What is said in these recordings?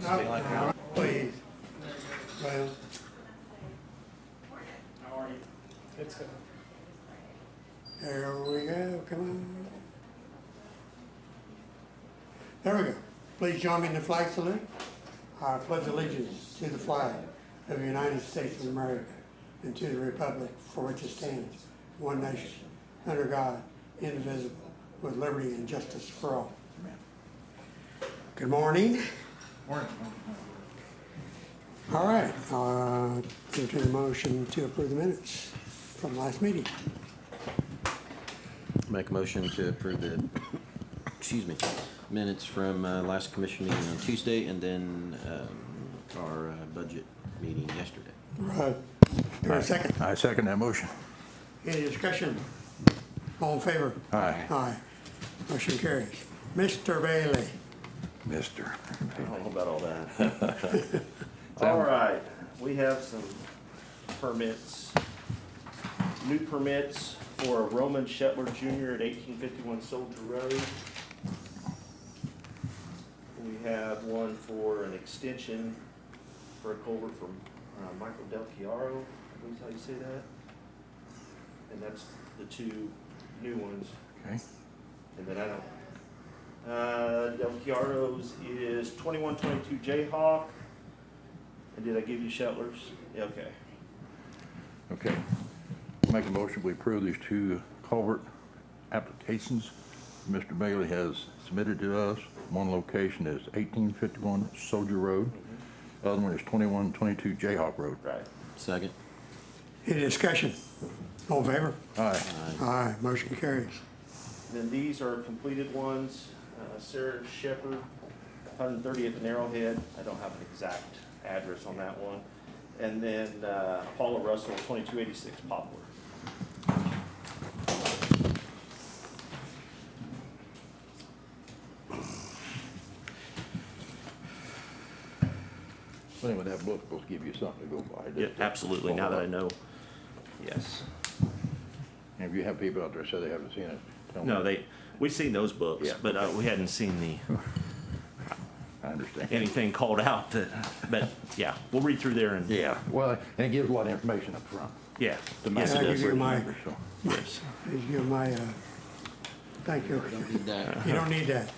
something like that. Please. Well, How are you? It's good. there we go, come on. There we go. Please join me in the flag salute. I pledge allegiance to the flag of the United States of America and to the republic for which it stands, one nation, under God, indivisible, with liberty and justice for all. Good morning. Morning. All right, uh, entertain a motion to approve the minutes from last meeting. Make a motion to approve the, excuse me, minutes from uh, last commission meeting on Tuesday and then um, our uh, budget meeting yesterday. Right. Do I have a second? I second that motion. Any discussion? All in favor? Aye. Aye. Motion carries. Mr. Bailey, Mister. I don't know about all that. All right, we have some permits. New permits for Roman Shetler Jr. at eighteen fifty-one Soldier Road. We have one for an extension for a culvert from uh, Michael Del Chiaro, I believe is how you say that. And that's the two new ones. Okay. And then I don't. Uh, Del Chiaro's is twenty-one twenty-two Jayhawk. And did I give you Shetler's? Yeah, okay. Okay. Make a motion, we approve these two culvert applications Mr. Bailey has submitted to us. One location is eighteen fifty-one Soldier Road. The other one is twenty-one twenty-two Jayhawk Road. Right. Second. any discussion? All in favor? Aye. Aye. Motion carries. Then these are completed ones. Uh, Sarah Shepherd, hundred thirtieth and Arrowhead. I don't have an exact address on that one. And then, uh, Paula Russell, twenty-two eighty-six Poplar. But Anyway, that book will give you something to go by. absolutely, now that I know. Yes. And if you have people out there say they haven't seen it, tell them. No, they, we've seen those books, Yeah. but, uh, we hadn't seen the, I understand. anything called out that, but, yeah, we'll read through there and, Yeah, well, and it gives a lot of information up front. yeah. to Yes, I it make- give does. you my, So, Yes. please give my, uh, thank you. Did that. You don't need that.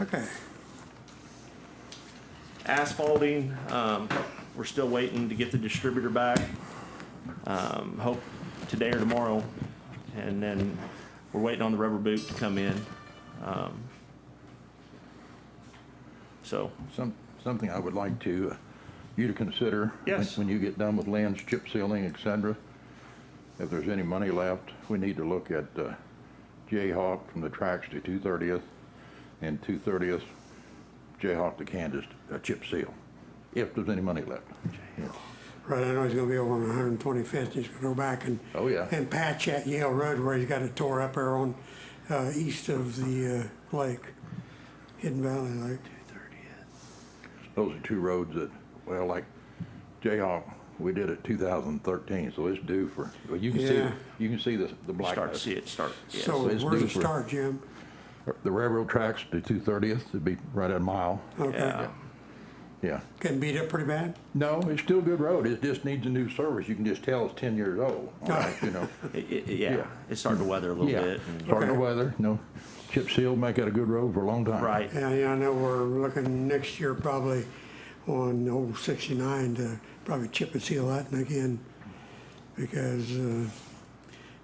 Okay. Asphalting, um, we're still waiting to get the distributor back. Um, hope today or tomorrow. And then we're waiting on the rubber boot to come in. Um, So, Some, something I would like to, uh, you to consider. when- Yes. When you get done with lands, chip sealing, et cetera, if there's any money left, we need to look at uh, Jayhawk from the tracks to 230th and 230th, Jayhawk to Kansas, uh, chip seal, if there's any money left. Right, I know he's gonna be over on 125th. He's gonna go back and. Oh, yeah. And patch at Yale Road where he's got it tore up there on, uh, east of the, uh, lake, Hidden Valley Lake. Those are two roads that, well, like Jayhawk, we did it 2013, so it's due for, well, you can see, Yeah. you can see the, the blackness. start to see it start. yes. So it's where's due it for- start, Jim? The railroad tracks to 230th, it'd be right at a mile, Okay. Yeah. yeah. Getting beat up pretty bad? No, it's still a good road, it just needs a new service, you can just tell it's 10 years old, all right, you know. It- it- Yeah, uh, Yeah. it's starting to weather a little Yeah, bit. and- starting to Okay. weather, no, chip seal, make it a good road for a long time. Right. Yeah, yeah, I know we're looking next year probably on old sixty-nine to probably chip and seal that and again. Because, uh,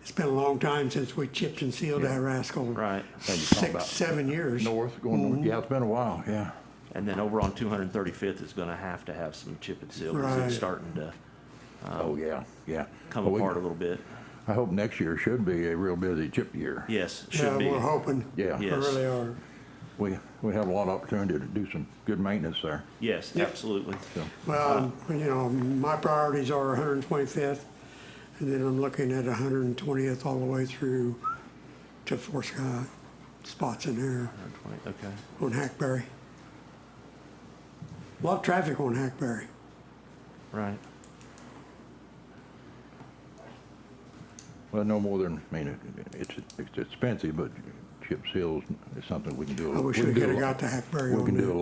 it's been a long time since we chipped and sealed that rascal. Right. Now you're talking Six, about seven years. North, going north, yeah, it's been a while, yeah. And then over on 235th is going to have to have some chip and seal because Right. it's starting to Oh, yeah, yeah. come Well, we- apart a little bit. I hope next year should be a real busy chip year. Yes, it Yeah, should be. we're hoping. Yeah. We Yes. really are. We, we have a lot of opportunity to do some good maintenance there. Yes, Yep. absolutely. So, Well, Uh, you know, my priorities are hundred and twenty-fifth and then I'm looking at hundred and twentieth all the way through to Fort Scott. Spots in there. 120, Okay. on Hackberry. A lot of traffic on Hackberry. Right. well, no more than, I mean, it- it's, it's expensive, but chip seals is something we can do. I wish can we do could have a lot- got to Hackberry We on can do a that.